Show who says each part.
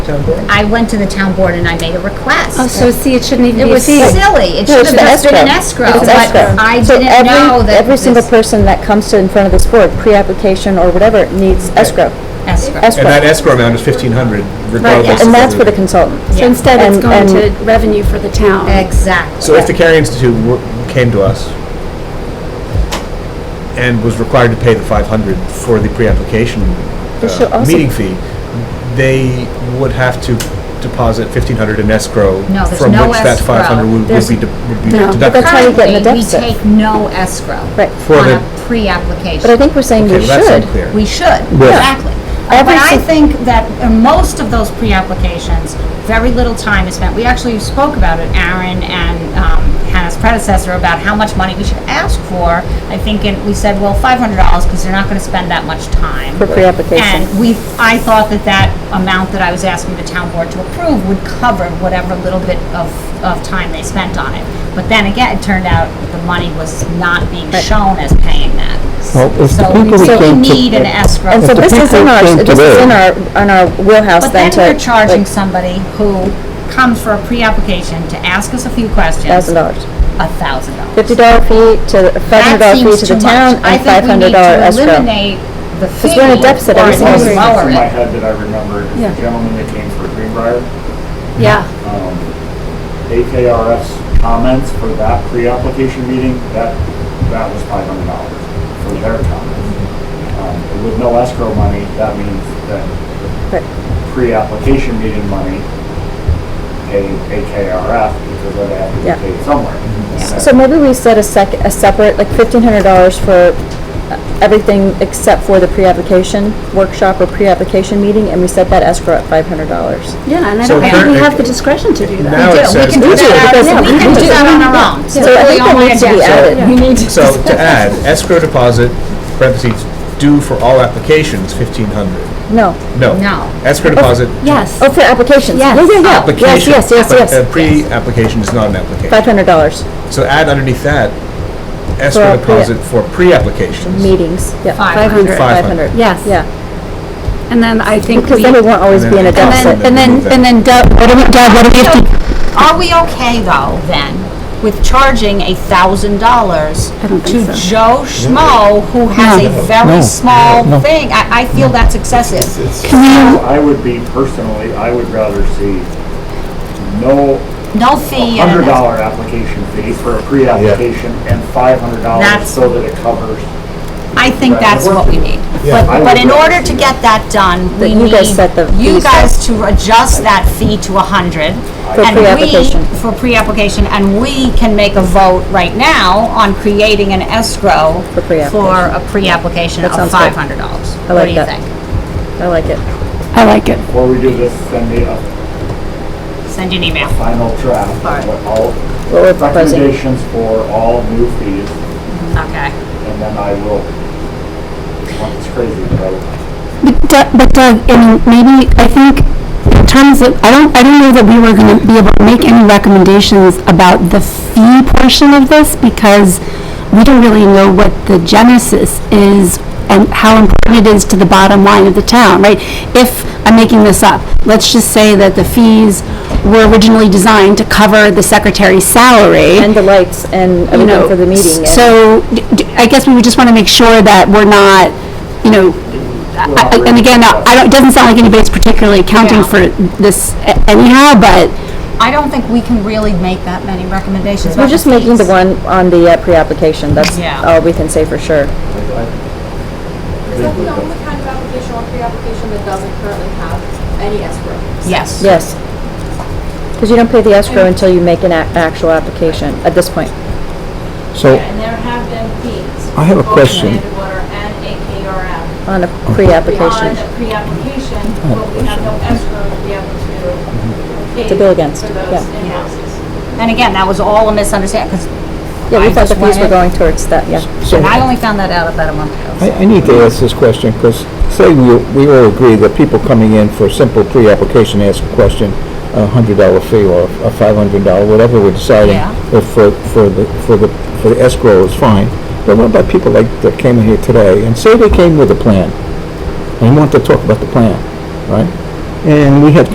Speaker 1: town board?
Speaker 2: I went to the town board and I made a request.
Speaker 3: Oh, so see, it shouldn't even
Speaker 2: It
Speaker 3: be a
Speaker 2: was
Speaker 3: fee.
Speaker 2: silly. It
Speaker 4: No,
Speaker 2: should have
Speaker 4: it's an
Speaker 2: just been an
Speaker 4: escrow.
Speaker 2: escrow,
Speaker 4: It's
Speaker 2: but
Speaker 4: escrow.
Speaker 2: I
Speaker 4: So
Speaker 2: didn't
Speaker 4: every-
Speaker 2: know that
Speaker 4: Every single
Speaker 2: this-
Speaker 4: person that comes to in front of this board, pre-application or whatever, needs escrow.
Speaker 2: Escrow.
Speaker 4: Escrow.
Speaker 1: And that escrow amount is fifteen hundred regardless.
Speaker 4: And
Speaker 1: of
Speaker 4: that's
Speaker 1: whether-
Speaker 4: for the consultant.
Speaker 2: Yeah.
Speaker 3: So instead,
Speaker 4: And-
Speaker 3: it's going
Speaker 4: and-
Speaker 3: to revenue for the town.
Speaker 2: Exactly.
Speaker 1: So if the Carey Institute were- came to us and was required to pay the five hundred for the pre-application
Speaker 4: They
Speaker 1: uh,
Speaker 4: should also-
Speaker 1: meeting fee, they would have to deposit fifteen hundred in escrow
Speaker 2: No, there's
Speaker 1: from
Speaker 2: no
Speaker 1: which that
Speaker 2: escrow.
Speaker 1: five hundred would
Speaker 2: There's-
Speaker 1: be de- would be
Speaker 3: No. But
Speaker 1: deducted.
Speaker 4: that's how you get in the
Speaker 2: Currently, we
Speaker 4: deficit.
Speaker 2: take no escrow
Speaker 4: Right.
Speaker 1: For
Speaker 2: on
Speaker 1: the-
Speaker 2: a pre-application.
Speaker 4: But I think we're saying
Speaker 1: Okay,
Speaker 4: we
Speaker 1: well, that's
Speaker 4: should.
Speaker 1: unclear.
Speaker 2: We should,
Speaker 1: Yeah.
Speaker 2: exactly. Uh,
Speaker 4: Every
Speaker 2: But I
Speaker 4: sin-
Speaker 2: think that in most of those pre-applications, very little time is spent. We actually spoke about it, Aaron and um, Hannah's predecessor, about how much money we should ask for. I think, and we said, well, five hundred dollars, because they're not gonna spend that much time.
Speaker 4: For pre-application.
Speaker 2: And we, I thought that that amount that I was asking the town board to approve would cover whatever little bit of, of time they spent on it. But then again, it turned out the money was not being shown as paying that.
Speaker 5: Well, if the
Speaker 2: So
Speaker 5: people
Speaker 2: we
Speaker 5: who
Speaker 2: so we
Speaker 5: came to-
Speaker 2: need an escrow.
Speaker 4: And so
Speaker 5: If the
Speaker 4: this is in
Speaker 5: people
Speaker 4: our,
Speaker 5: came
Speaker 4: this is
Speaker 5: today-
Speaker 4: in our, on our wheelhouse
Speaker 2: But then
Speaker 4: then to.
Speaker 2: we're charging
Speaker 4: like,
Speaker 2: somebody who comes for a pre-application to ask us a few questions.
Speaker 4: Thousand dollars.
Speaker 2: A thousand dollars.
Speaker 4: Fifty dollar fee to, five hundred dollar
Speaker 2: That seems
Speaker 4: fee to the
Speaker 2: too
Speaker 4: town
Speaker 2: much.
Speaker 4: and five hundred dollar escrow.
Speaker 2: I think we need to eliminate the fee.
Speaker 4: we're in a deficit every
Speaker 2: or
Speaker 4: single
Speaker 2: just
Speaker 3: year.
Speaker 2: lower
Speaker 6: in my
Speaker 2: it.
Speaker 6: head that I remembered, is
Speaker 3: Yeah.
Speaker 6: the gentleman that came for Greenbrier,
Speaker 3: Yeah,
Speaker 6: um, AKRF's comments for that pre-application meeting, that, that was five hundred dollars for their comments. Um, With no escrow money, that means that
Speaker 4: Right.
Speaker 6: the pre-application meeting money paid AKRF because they had to
Speaker 4: Yeah.
Speaker 6: be paid somewhere. And that-
Speaker 4: So maybe we set a sec, a separate, like fifteen hundred dollars for uh, everything except for the pre-application workshop or pre-application meeting, and we set that escrow at five hundred dollars.
Speaker 3: yeah, and I
Speaker 1: So
Speaker 3: don't think we
Speaker 1: currently-
Speaker 3: have the discretion to do that.
Speaker 1: Now it
Speaker 2: Do, we
Speaker 1: says.
Speaker 2: can do that,
Speaker 4: because
Speaker 2: on-
Speaker 4: we
Speaker 2: we can
Speaker 4: do.
Speaker 2: do that on our own.
Speaker 4: So I
Speaker 2: Literally
Speaker 4: think
Speaker 2: on
Speaker 4: that
Speaker 2: my
Speaker 4: needs to be
Speaker 2: agenda.
Speaker 4: added.
Speaker 3: We need to.
Speaker 1: So to add, escrow deposit, parentheses, due for all applications, fifteen hundred.
Speaker 4: No,
Speaker 1: No.
Speaker 2: No.
Speaker 1: Escrow deposit.
Speaker 3: Yes,
Speaker 4: oh, for applications?
Speaker 3: Yes.
Speaker 4: Yeah, yeah, yeah, yes,
Speaker 1: Application.
Speaker 4: yes, yes,
Speaker 1: But
Speaker 4: yes.
Speaker 1: a pre-application is not an application.
Speaker 4: Five hundred dollars,
Speaker 1: So add underneath that,
Speaker 4: For
Speaker 1: escrow
Speaker 4: a pre-
Speaker 1: deposit for pre-applications.
Speaker 4: meetings, yeah.
Speaker 2: Five
Speaker 3: hundred.
Speaker 4: Five hundred,
Speaker 3: Yes.
Speaker 4: yeah,
Speaker 3: and then I think
Speaker 4: because
Speaker 3: we,
Speaker 4: then we won't always be in a
Speaker 1: And then-
Speaker 4: deficit.
Speaker 1: and then- and
Speaker 4: then Deb, what do we, Deb, what do we
Speaker 2: Are we okay though, then, with charging a thousand dollars
Speaker 3: don't
Speaker 2: to
Speaker 3: think so.
Speaker 2: Joe Schmo, who has a very
Speaker 5: No.
Speaker 2: small
Speaker 5: No.
Speaker 2: thing? I, I feel that's excessive.
Speaker 6: I would be, personally, I would rather see no
Speaker 2: No fee. and-
Speaker 6: hundred dollar application fee for a pre-application and five hundred dollars
Speaker 2: That's-
Speaker 6: so that it covers.
Speaker 2: I think
Speaker 6: Right.
Speaker 2: that's what we need.
Speaker 6: Yeah.
Speaker 2: But,
Speaker 6: I
Speaker 2: but
Speaker 6: would
Speaker 2: in
Speaker 6: rather
Speaker 2: order to
Speaker 6: see
Speaker 2: get that done,
Speaker 4: That
Speaker 2: we
Speaker 4: you guys
Speaker 2: need
Speaker 4: set the
Speaker 2: you
Speaker 4: fees
Speaker 2: guys to adjust that fee to a hundred.
Speaker 4: For
Speaker 2: and we-
Speaker 4: pre-application.
Speaker 2: For pre-application, and we can make a vote right now on creating an escrow
Speaker 4: For pre-application.
Speaker 2: for a pre-application
Speaker 4: That
Speaker 2: of
Speaker 4: sounds good.
Speaker 2: five hundred dollars.
Speaker 4: I
Speaker 2: What
Speaker 4: like
Speaker 2: do you
Speaker 4: that.
Speaker 2: think?
Speaker 4: I like it.
Speaker 3: I like it.
Speaker 6: Before we do this, send me a
Speaker 2: Send you an email.
Speaker 6: final draft
Speaker 2: Alright.
Speaker 6: of what all
Speaker 4: What we're proposing.
Speaker 6: recommendations for all new fees,
Speaker 2: Okay.
Speaker 6: and then I will, well, it's crazy, but I will.
Speaker 7: Doug- But Doug, I mean, maybe, I think, in terms of, I don't, I don't know that we were gonna be able to make any recommendations about the fee portion of this, because we don't really know what the genesis is and how important it is to the bottom line of the town, right? If, I'm making this up, let's just say that the fees were originally designed to cover the secretary's salary
Speaker 4: And the lights and
Speaker 7: you know,
Speaker 4: everything for the meeting. and-
Speaker 7: So, d- d- I guess we would just want to make sure that we're not, you know, I- I- and again, I don't, it doesn't sound like anybody's particularly accounting
Speaker 2: Yeah.
Speaker 7: for this a- anyhow, but,
Speaker 2: I don't think we can really make that many recommendations.
Speaker 4: We're
Speaker 2: about
Speaker 4: just making the
Speaker 2: fees.
Speaker 4: one on the uh, pre-application, that's
Speaker 2: Yeah.
Speaker 4: all we can say for sure.
Speaker 8: Is that the only kind of application or pre-application that doesn't currently have any escrow?
Speaker 2: Yes.
Speaker 4: Yes. Because you don't pay the escrow until you make an ac- actual application, at this point.
Speaker 5: So
Speaker 8: And there have been fees.
Speaker 5: I have a
Speaker 8: both
Speaker 5: question.
Speaker 8: Land, water, and AKRF.
Speaker 4: on a
Speaker 8: Beyond
Speaker 4: pre-application. Oh.
Speaker 8: the pre-application, but we have no escrow to be able to pay.
Speaker 4: To bill against,
Speaker 8: For
Speaker 4: yeah.
Speaker 8: those invoices.
Speaker 2: And again, that was all a misunderstanding, 'cause-
Speaker 4: Yeah,
Speaker 2: I
Speaker 4: we thought
Speaker 2: just
Speaker 4: the fees were
Speaker 2: wanted-
Speaker 4: going towards that, yeah.
Speaker 2: and I only found that out about a month ago.
Speaker 5: I, I need to ask this question, because say we, we all agree that people coming in for simple pre-application ask a question, a hundred dollar fee or a five hundred dollar, whatever we're deciding,
Speaker 2: Yeah.
Speaker 5: if for, for the, for the, for the escrow is fine. But what about people like, that came in here today, and say they came with a plan, and want to talk about the plan, right? And we had